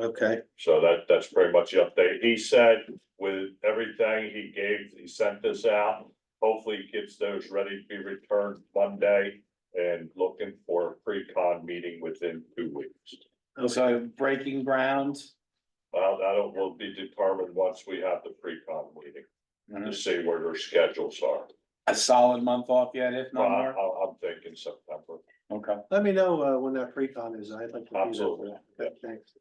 Okay, So that, that's pretty much the update. He said with everything he gave, he sent this out. Hopefully he gets those ready to be returned Monday and looking for a pre-con meeting within two weeks. so breaking ground. Well, that will be determined once we have the pre-con meeting to see where their schedules are. A solid month off yet, if Well, not I, more. I- I'm thinking September. Okay. Let me know uh when that pre-con is. I'd like to. be there for that. Okay, Thanks.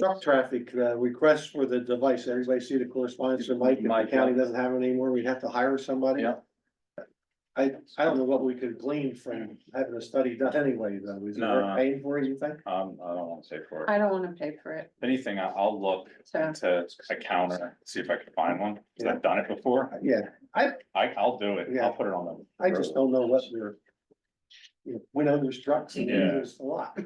Truck traffic, uh, request for the device. Everybody see the correspondence from Mike? If Mike, the county doesn't have it anymore, we'd have to hire somebody. Yeah. I, I don't know what we could glean from having a study done anyway, though. Is it No. worth paying for it, you think? Um, I don't want to say for it. I don't wanna pay for it, If anything, I- I'll look so, into a counter, see if I can find one, because I've done it before. Uh, Yeah, I, I'll do it. Yeah. I'll put it on the. I just don't know what we're. You know, we know there's trucks and Yeah. there's a lot.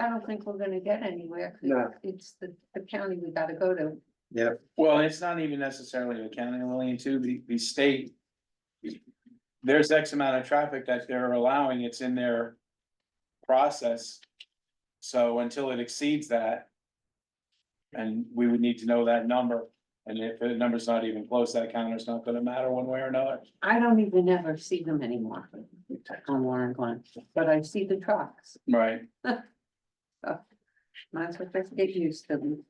I don't think we're gonna get anywhere, 'cause No. it's the, the county we gotta go to. Well, it's not even necessarily the county, Lillian, too, the, the state. There's X amount of traffic that they're allowing, it's in their process. So until it exceeds that. And we would need to know that number, and if the number's not even close, that counter's not gonna matter one way or another. I don't even ever see them anymore on Warren Glen, but I see the trucks, Right. might as well just get used to them.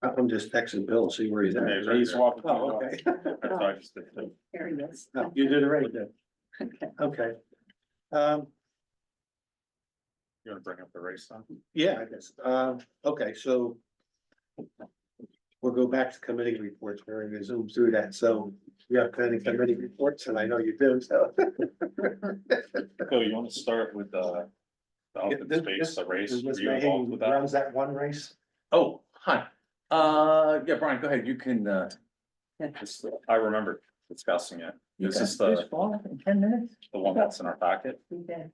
I'm just texting Bill, see where he's at. He's walking. Oh, okay. Oh, There he is. No, You did it right then. Okay. Okay. Um, You wanna bring up the race on? yeah, I guess, um, okay, so. We'll go back to committee reports, we're gonna zoom through that, so we have planning committee reports, and I know you do, so. Bill, you wanna start with, uh, the open Yeah, this- space, the race? Is Miss Were you involved Mayhew with that? runs that one race? Oh, hi. Uh, yeah, Brian, go ahead. You can, uh, Yeah. it's- I remember discussing it. This is Okay. the, in ten minutes? the one that's in our packet. We did.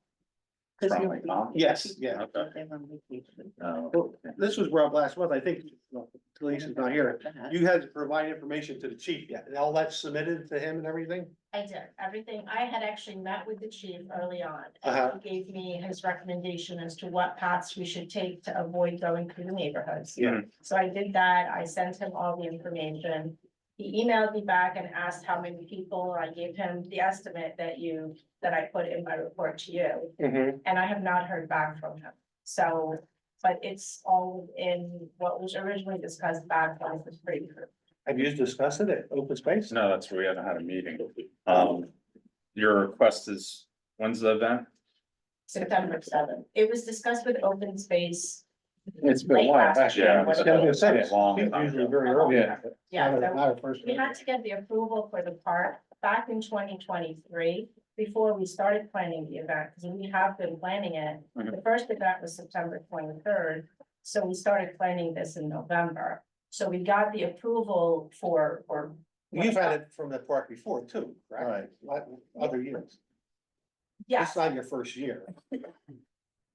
'Cause From nobody- Tom? Yes, yeah. Okay. They're on vacation. Uh, Well, This was Rob last month, I think, well, Lisa's not here, you had to provide information to the chief yet, and all that's submitted to him and everything? I did everything. I had actually met with the chief early on. Uh-huh. and He gave me his recommendation as to what paths we should take to avoid going through the neighborhoods. Yeah. So I did that. I sent him all the information. He emailed me back and asked how many people. I gave him the estimate that you, that I put in my report to you. Mm-hmm. And I have not heard back from him. So, but it's all in what was originally discussed back on the three. Have you discussed it at open space? No, that's where we haven't had a meeting. Um, your request is, when's the event? September seventh. It was discussed with open space It's been Late last year. I was gonna say, it's Long time usually ago. very early. Yeah. Yeah, so Not a first. we had to get the approval for the park back in twenty twenty-three before we started planning the event, because we have been planning it. Mm-hmm. The first event was September twenty-third, so we started planning this in November. So we got the approval for, or. You've had it from the park before too, right? Like other years. It's Yes, not your first year.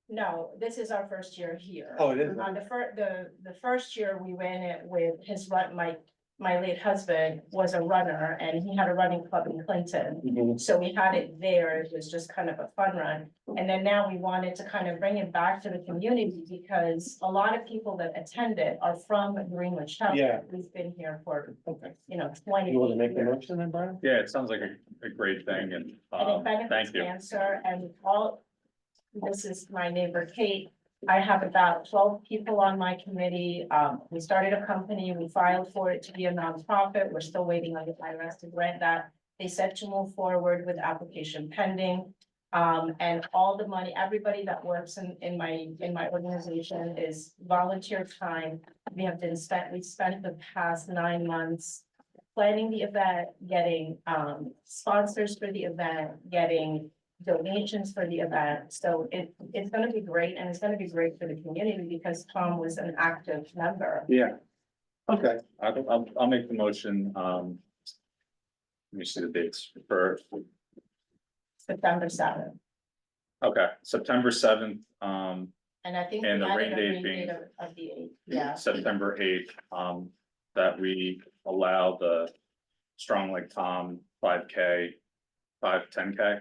no, this is our first year here. Oh, it is. On the fir, the, the first year we ran it with his run, my, my late husband was a runner and he had a running club in Clinton. So we had it there, it was just kind of a fun run. And then now we wanted to kind of bring it back to the community because a lot of people that attend it are from Greenwich Yeah. Township. We've been here for, Okay. you know, twenty. You wanna make the years. motion then, Brian? Yeah, it sounds like a, a great thing and, And it um, benefits thank you. cancer and all, this is my neighbor Kate. I have about twelve people on my committee. Um, we started a company, we filed for it to be a nonprofit. We're still waiting on the IRS to grant that. They said to move forward with application pending. Um, and all the money, everybody that works in, in my, in my organization is volunteer time. We have been spent, we spent the past nine months planning the event, getting um sponsors for the event, getting donations for the event. So it it's gonna be great and it's gonna be great for the community because Tom was an active member. Yeah. Okay, I'll, I'll, I'll make the motion, um. Let me see the dates for, September seventh. okay, September seventh, um, And I think. And we the rain added a date rain being- date Of of the eighth, yeah. September eighth, um, that we allow the Strong Like Tom five K, five, ten K